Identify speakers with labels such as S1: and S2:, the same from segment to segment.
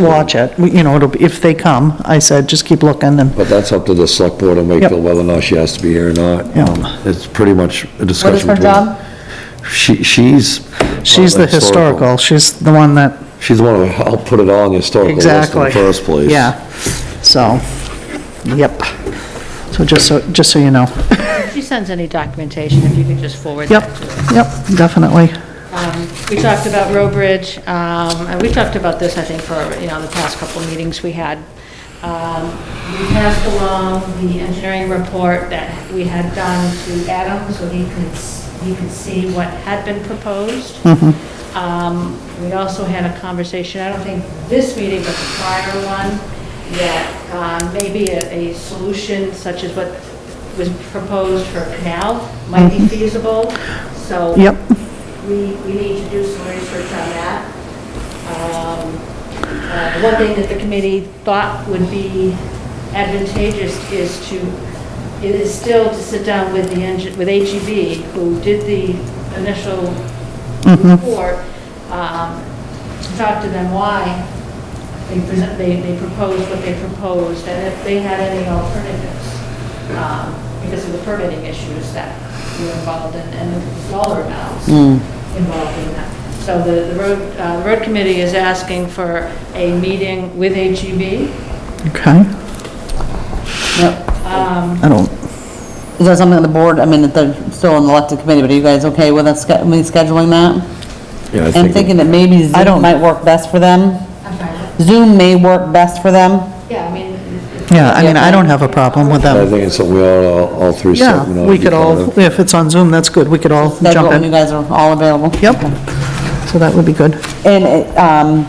S1: watch it, We- you know, it'll, be if they come, I said, just keep looking and,
S2: But that's up to the select board in Wakefield whether or not she has to be here or not.
S1: Yeah.
S2: Um, It's pretty much a discussion.
S3: What is her
S2: between-
S3: job?
S2: She, she's.
S1: she's the historical, she's the one that,
S2: She's the one who helped put it on the historical list in
S1: exactly.
S2: the first place.
S1: Yeah, so, yep. So just so, just so you know.
S3: If she sends any documentation, if you could just forward
S1: Yep,
S3: that to us.
S1: yep, definitely.
S3: Um, We talked about Row Bridge, um, and we talked about this, I think, for, you know, the past couple of meetings we had. Um, We passed along the engineering report that we had done to Adam, so he could, s- he could see what had been proposed. Um, We also had a conversation, I don't think this meeting, but the prior one, that um, maybe a a solution such as what was proposed for canal might be feasible, so.
S1: Yep.
S3: We, we need to do some research on that. Um, uh, One thing that the committee thought would be advantageous is to, it is still to sit down with the, engi- with HEB, who did the initial report, um, to talk to them why they present, they, they proposed what they proposed, and if they had any alternatives, um, because of the permitting issues that were involved in, and the dollar amounts
S1: Hmm.
S3: involved in that. So the, the road, uh, the road committee is asking for a meeting with E HEB.
S1: Okay,
S4: Yep.
S3: Um,
S1: I don't,
S4: Is that something the board, I mean, that they're still on the elected committee, but are you guys okay with us, sch- me scheduling that?
S2: Yeah, I
S4: And thinking
S2: think,
S4: that maybe
S1: I don't-
S4: Zoom might work best for them?
S3: I'm sorry,
S4: Zoom may work best for them?
S3: yeah, I mean. if-
S1: yeah, I mean, I don't have a problem with
S2: I
S1: them.
S2: think it's something we all, all- all three.
S1: Yeah,
S2: selectmen ought to
S1: we
S2: be
S1: could all,
S2: part of.
S1: if it's on Zoom, that's good, we could all
S4: That's
S1: jump
S4: when you
S1: in.
S4: guys are all available?
S1: Yep, so that would be good.
S4: And, it, um,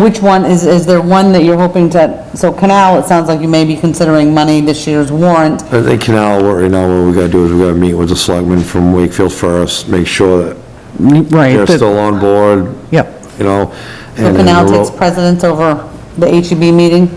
S4: which one, is, is there one that you're hoping to, so Canal, it sounds like you may be considering money this year's warrant.
S2: I think canal, what- right now, what we gotta do is we gotta meet with the selectmen from Wakefield first, make sure that
S1: Right,
S2: they're
S1: that-
S2: still on board,
S1: yep,
S2: you know.
S4: So
S2: and then
S4: Canal
S2: the
S4: takes
S2: Ro-
S4: precedence over the HEB meeting?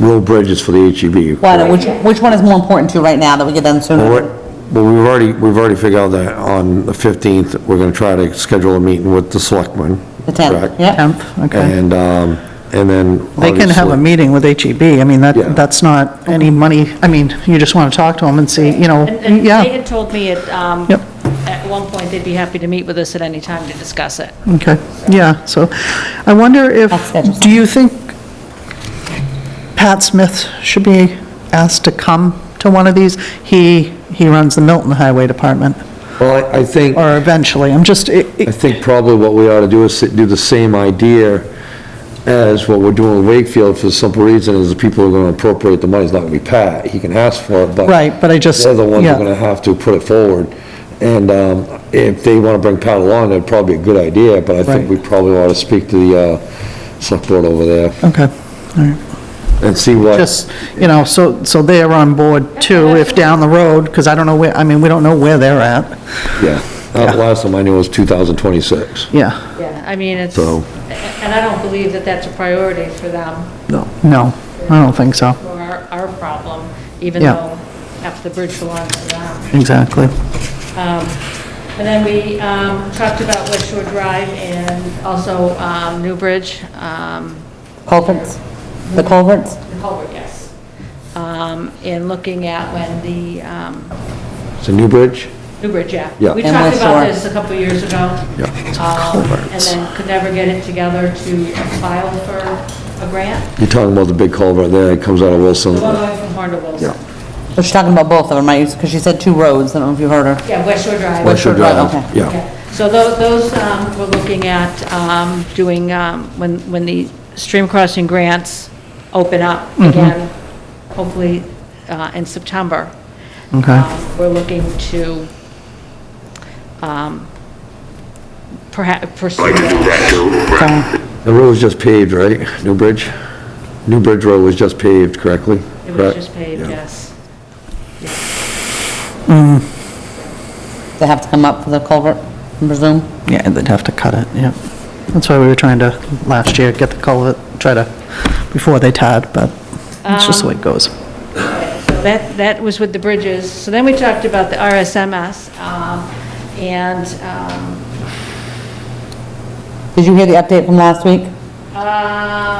S2: Road bridges for the E HEB.
S4: Why, not? which, which one is more important to you right now, that we get done
S2: Well,
S4: sooner?
S2: we're- Well, we've already, we've already figured out that on the 15th, we're going to try to schedule a meeting with the selectmen.
S4: The 10th,
S2: correct?
S4: yeah?
S1: 10th, okay.
S2: And, um, and then.
S1: They can have a
S2: obviously-
S1: meeting with HEB, I mean,
S2: Yeah.
S1: that, that's not any money, I mean, you just want to talk to them and see, you know,
S3: And and they
S1: yeah,
S3: had told me at, um,
S1: Yep.
S3: at one point, they'd be happy to meet with us at any time to discuss it.
S1: okay, yeah, so, I wonder if,
S4: That's interesting.
S1: do you think Pat Smith should be asked to come to one of these? He, he runs the Milton Highway Department,
S2: Well, I- I think,
S1: or eventually, I'm just, it-
S2: I
S1: it-
S2: think probably what we ought to do is sit- do the same idea as what we're doing in Wakefield for the simple reason is the people who are going to appropriate the money. It's not going to be Pat. He can ask for it, but.
S1: right, but I just,
S2: They're the ones who are
S1: yeah,
S2: gonna have to put it forward. And um, if they wanna bring Pat along, that'd probably be a good idea, but I think we
S1: Right.
S2: probably ought to speak to the uh, select board over there
S1: okay, all right.
S2: and see what,
S1: just, you know, so, so they're on board too, if down the road, because I don't know where, I mean, we don't know where they're at,
S2: yeah. Uh, Last time I knew was 2026.
S1: yeah,
S3: Yeah, I mean, it's,
S2: So-
S3: and I don't believe that that's a priority for them.
S2: No.
S1: no, I don't think so,
S3: or our, our problem, even
S1: Yeah.
S3: though half the bridge belongs to them.
S1: exactly.
S3: Um, And then we um, talked about West Shore Drive and also um, New Bridge, um,
S4: Culverts? The culverts?
S3: the culvert, yes. Um, And looking at when the, um,
S2: It's a new bridge?
S3: New Bridge, yeah.
S2: Yeah.
S3: We
S4: And
S3: talked
S4: West
S3: about
S4: Shore.
S3: this a couple years ago.
S2: Yeah.
S3: um, And then could never get it together to file for a grant.
S2: You're talking about the big culvert there that comes out of Wilson.
S3: The one going from Horn to Wilson.
S4: But she's talking about both of them, right? Because she said two roads, I don't know if you heard her.
S3: Yeah, West Shore Drive.
S2: West Shore
S4: Shore Drive,
S2: Drive,
S4: okay.
S2: yeah.
S3: So tho- those, um, we're looking at um, doing, um, when, when the stream crossing grants open up again, hopefully uh, in September.
S1: Okay.
S3: um, We're looking to um, perhaps pursue that.
S2: The road was just paved, right? New Bridge? New Bridge Road was just paved correctly?
S3: It was
S2: correct?
S3: just paved, yes.
S4: They have to come up for the culvert, I presume?
S1: Yeah, they'd have to cut it, yeah. That's why we were trying to, last year, get the culvert, try to, before they tied, but it's just the way it goes.
S3: So That, that was with the bridges. So then we talked about the RSMS um, and um,
S4: Did you hear the update from last week?
S3: uh,